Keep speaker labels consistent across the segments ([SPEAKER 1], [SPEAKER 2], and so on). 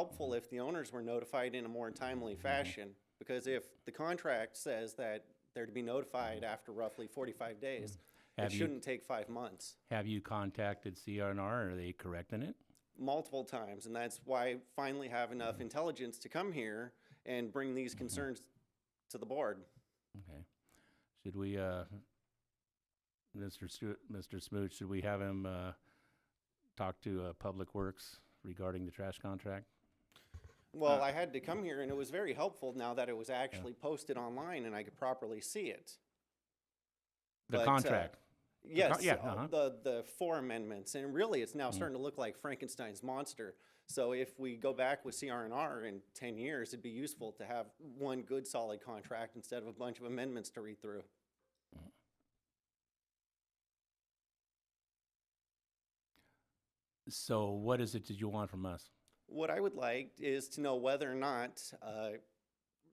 [SPEAKER 1] helpful if the owners were notified in a more timely
[SPEAKER 2] Mm-hmm.
[SPEAKER 1] fashion, because if the contract says that they're to be notified after roughly forty-five days, it
[SPEAKER 2] Mm-hmm. Have you-
[SPEAKER 1] shouldn't take five months,
[SPEAKER 2] Have you contacted CRNR? Are they correcting it?
[SPEAKER 1] multiple times, and that's why I finally have enough
[SPEAKER 2] Mm-hmm.
[SPEAKER 1] intelligence to come here and bring these concerns to the board.
[SPEAKER 2] Okay. Should we, uh, Mr. Stewart, Mr. Smooch, should we have him, uh, talk to, uh, Public Works regarding the trash contract? Uh.
[SPEAKER 1] Well, I had to come here, and it was very helpful now that it was actually posted online and I could properly see it. But,
[SPEAKER 2] The
[SPEAKER 1] uh,
[SPEAKER 2] contract,
[SPEAKER 1] Yes,
[SPEAKER 2] yeah,
[SPEAKER 1] uh,
[SPEAKER 2] uh-huh.
[SPEAKER 1] the the four amendments, and really, it's now starting to look like Frankenstein's monster. So if we go back with CRNR in ten years, it'd be useful to have one good solid contract instead of a bunch of amendments to read through.
[SPEAKER 2] so what is it that you want from us?
[SPEAKER 1] What I would like is to know whether or not uh,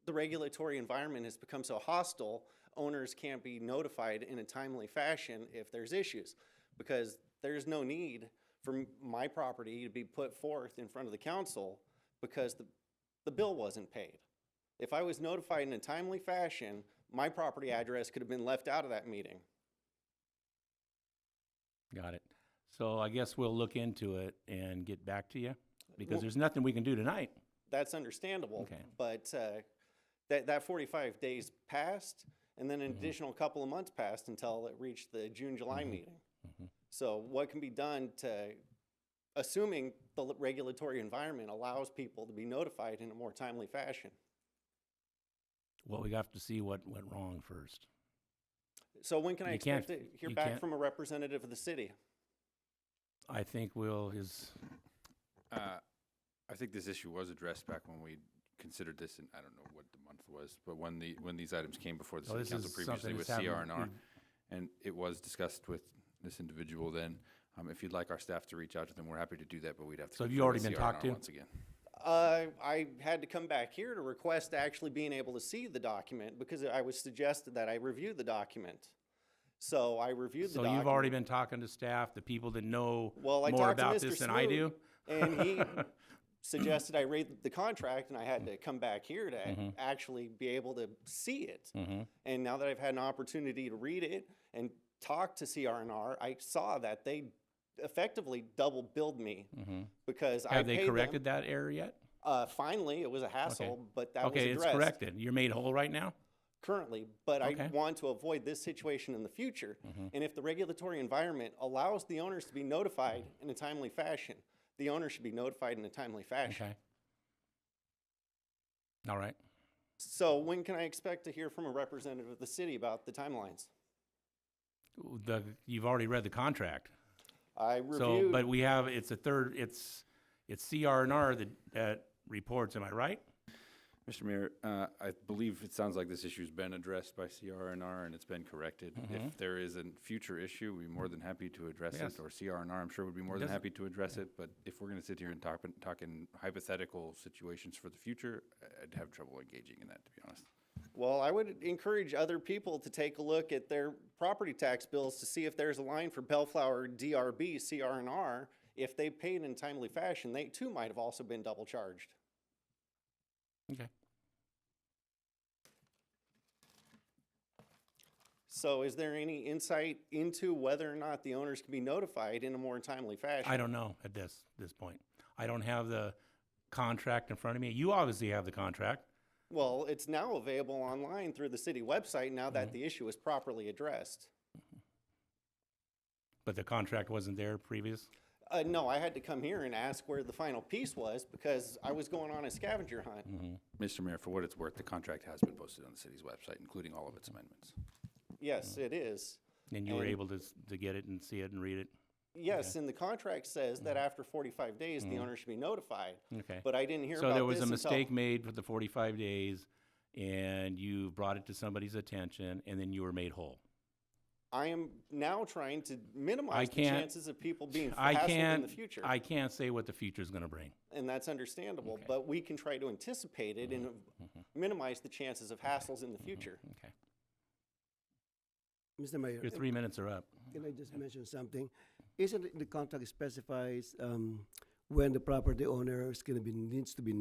[SPEAKER 1] the regulatory environment has become so hostile, owners can't be notified in a timely fashion if there's issues. Because there's no need for m- my property to be put forth in front of the council because the, the bill wasn't paid. If I was notified in a timely fashion, my property address could have been left out of that meeting.
[SPEAKER 2] Got it. So I guess we'll look into it and get back to you, because
[SPEAKER 1] Well-
[SPEAKER 2] there's nothing we can do tonight.
[SPEAKER 1] that's understandable.
[SPEAKER 2] Okay.
[SPEAKER 1] But uh, that that 45 days passed, and then an
[SPEAKER 2] Mm-hmm.
[SPEAKER 1] additional couple of months passed until it reached the June July meeting.
[SPEAKER 2] Mm-hmm.
[SPEAKER 1] So what can be done to, assuming the l- regulatory environment allows people to be notified in a more timely fashion?
[SPEAKER 2] Well, we have to see what went wrong first.
[SPEAKER 1] So when can I
[SPEAKER 2] You can't-
[SPEAKER 1] expect to hear
[SPEAKER 2] you
[SPEAKER 1] back
[SPEAKER 2] can't-
[SPEAKER 1] from a representative of the city?
[SPEAKER 2] I think Will is,
[SPEAKER 3] Uh, I think this issue was addressed back when we considered this, and I don't know what the month was, but when the, when these items came before the
[SPEAKER 2] Oh,
[SPEAKER 3] city
[SPEAKER 2] this
[SPEAKER 3] council
[SPEAKER 2] is
[SPEAKER 3] previously
[SPEAKER 2] something
[SPEAKER 3] with
[SPEAKER 2] that's happened.
[SPEAKER 3] CRNR. And it was discussed with this individual then. Um, if you'd like our staff to reach out to them, we're happy to do that, but we'd have to.
[SPEAKER 2] So have
[SPEAKER 3] confirm
[SPEAKER 2] you already
[SPEAKER 3] with
[SPEAKER 2] been talked
[SPEAKER 3] CRNR
[SPEAKER 2] to?
[SPEAKER 3] Once again.
[SPEAKER 1] Uh, I had to come back here to request actually being able to see the document because I was suggested that I review the document. So I reviewed the
[SPEAKER 2] so
[SPEAKER 1] document.
[SPEAKER 2] you've already been talking to staff, the people that know
[SPEAKER 1] Well, I
[SPEAKER 2] more
[SPEAKER 1] talked
[SPEAKER 2] about
[SPEAKER 1] to Mr.
[SPEAKER 2] this than I do?
[SPEAKER 1] Smoot, and he suggested I read the contract, and I had to
[SPEAKER 2] Mm-hmm.
[SPEAKER 1] come back here to actually be able to see it. And now that I've had an opportunity to read it and talk to CRNR, I saw that they effectively double billed me because I
[SPEAKER 2] Have they
[SPEAKER 1] paid them-
[SPEAKER 2] corrected that error yet?
[SPEAKER 1] Uh, finally, it was a hassle, but that
[SPEAKER 2] Okay,
[SPEAKER 1] was
[SPEAKER 2] it's
[SPEAKER 1] addressed
[SPEAKER 2] corrected. You're made whole right now?
[SPEAKER 1] currently, but I
[SPEAKER 2] Okay. Mm-hmm.
[SPEAKER 1] want to avoid this situation in the future. And if the regulatory environment allows the owners to be notified in a timely fashion, the owner should be notified in a timely fashion.
[SPEAKER 2] Okay. All right.
[SPEAKER 1] So when can I expect to hear from a representative of the city about the timelines?
[SPEAKER 2] The, you've already read the contract.
[SPEAKER 1] I
[SPEAKER 2] So,
[SPEAKER 1] reviewed,
[SPEAKER 2] but we have, it's a third, it's, it's CRNR that, that reports, am I right?
[SPEAKER 3] Mr. Mayor, uh, I believe it sounds like this issue's been addressed by CRNR and it's been corrected. If there is a future issue, we'd be more than happy to address
[SPEAKER 2] Yes.
[SPEAKER 3] it, or CRNR, I'm sure would be more than
[SPEAKER 2] Doesn't-
[SPEAKER 3] happy to address it. But if we're going to sit here and talk, talk in hypothetical situations for the future, I- I'd have trouble engaging in that, to be honest.
[SPEAKER 1] well, I would encourage other people to take a look at their property tax bills to see if there's a line for Bellflower DRB, CRNR. If they paid in timely fashion, they too might have also been double charged.
[SPEAKER 2] Okay.
[SPEAKER 1] So is there any insight into whether or not the owners can be notified in a more timely fashion?
[SPEAKER 2] I don't know at this, this point. I don't have the contract in front of me. You obviously have the contract.
[SPEAKER 1] Well, it's now available online through the city website now
[SPEAKER 2] Mm-hmm.
[SPEAKER 1] that the issue is properly addressed.
[SPEAKER 2] But the contract wasn't there previous?
[SPEAKER 1] Uh, no, I had to come here and ask where the final piece was because I was going on a scavenger hunt.
[SPEAKER 2] Mm-hmm.
[SPEAKER 3] Mr. Mayor, for what it's worth, the contract has been posted on the city's website, including all of its amendments.
[SPEAKER 2] Mm-hmm.
[SPEAKER 1] Yes, it is.
[SPEAKER 2] And you were
[SPEAKER 1] And-
[SPEAKER 2] able to, s- to get it and see it and read it?
[SPEAKER 1] Yes, and the contract says that after 45 days, the owner should be notified.
[SPEAKER 2] Mm-hmm. Okay.
[SPEAKER 1] But I didn't hear about
[SPEAKER 2] So
[SPEAKER 1] this
[SPEAKER 2] there was a
[SPEAKER 1] until-
[SPEAKER 2] mistake made with the forty-five days, and you brought it to somebody's attention, and then you were made whole.
[SPEAKER 1] I am now trying to minimize the
[SPEAKER 2] can't-
[SPEAKER 1] chances of people being
[SPEAKER 2] I
[SPEAKER 1] hassled
[SPEAKER 2] can't,
[SPEAKER 1] in the future.
[SPEAKER 2] I can't say what the future's gonna bring.
[SPEAKER 1] and that's understandable, but we can try to anticipate it and uh,
[SPEAKER 2] Mm-hmm.
[SPEAKER 1] minimize the chances of hassles in the future.
[SPEAKER 2] Okay.
[SPEAKER 4] Mr. Mayor,
[SPEAKER 2] Your three minutes are up.
[SPEAKER 4] can I just mention something? Isn't it the contract specifies um, when the property owner is gonna be, needs to be